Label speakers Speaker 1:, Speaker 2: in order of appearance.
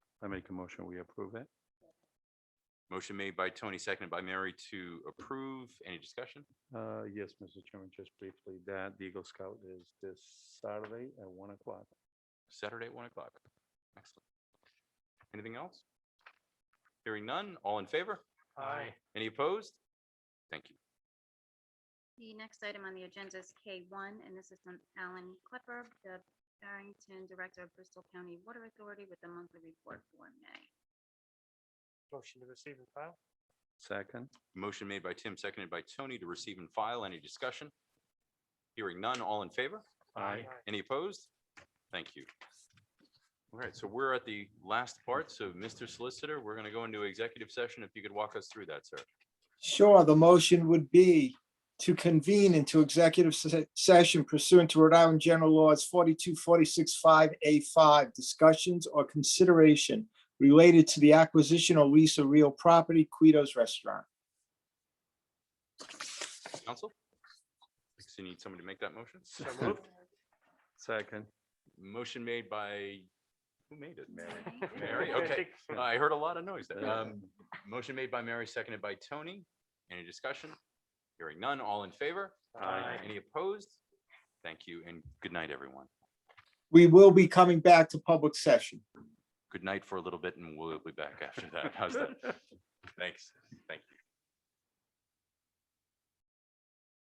Speaker 1: I make a motion, we approve it.
Speaker 2: Motion made by Tony, seconded by Mary to approve. Any discussion?
Speaker 1: Uh, yes, Mr. Chairman, just briefly, that the Eagle Scout is this Saturday at one o'clock.
Speaker 2: Saturday at one o'clock. Excellent. Anything else? Hearing none, all in favor?
Speaker 3: Aye.
Speaker 2: Any opposed? Thank you.
Speaker 4: The next item on the agenda is K1, and this is from Alan Klepper, the Barrington Director of Bristol County Water Authority with the monthly report for May.
Speaker 3: Motion to receive and file.
Speaker 1: Second,
Speaker 2: Motion made by Tim, seconded by Tony to receive and file. Any discussion? Hearing none, all in favor?
Speaker 1: Aye.
Speaker 2: Any opposed? Thank you. All right, so we're at the last part. So Mr. Solicitor, we're going to go into executive session. If you could walk us through that, sir.
Speaker 5: Sure, the motion would be to convene into executive se- session pursuant to Rhode Island General Laws 42, 46, 5A5, discussions or consideration related to the acquisition or lease of real property, Quito's Restaurant.
Speaker 2: Counsel? So you need somebody to make that motion?
Speaker 3: So moved.
Speaker 1: second,
Speaker 2: Motion made by, who made it?
Speaker 4: Mary.
Speaker 2: Mary,
Speaker 3: We're gonna
Speaker 2: okay.
Speaker 3: take-
Speaker 2: I heard a lot of noise there.
Speaker 1: Yeah.
Speaker 2: Um, Motion made by Mary, seconded by Tony. Any discussion? Hearing none, all in favor?
Speaker 1: Aye.
Speaker 2: Any opposed? Thank you and good night, everyone.
Speaker 5: We will be coming back to public session.
Speaker 2: Good night for a little bit and we'll be back after that. How's that? Thanks. Thank you.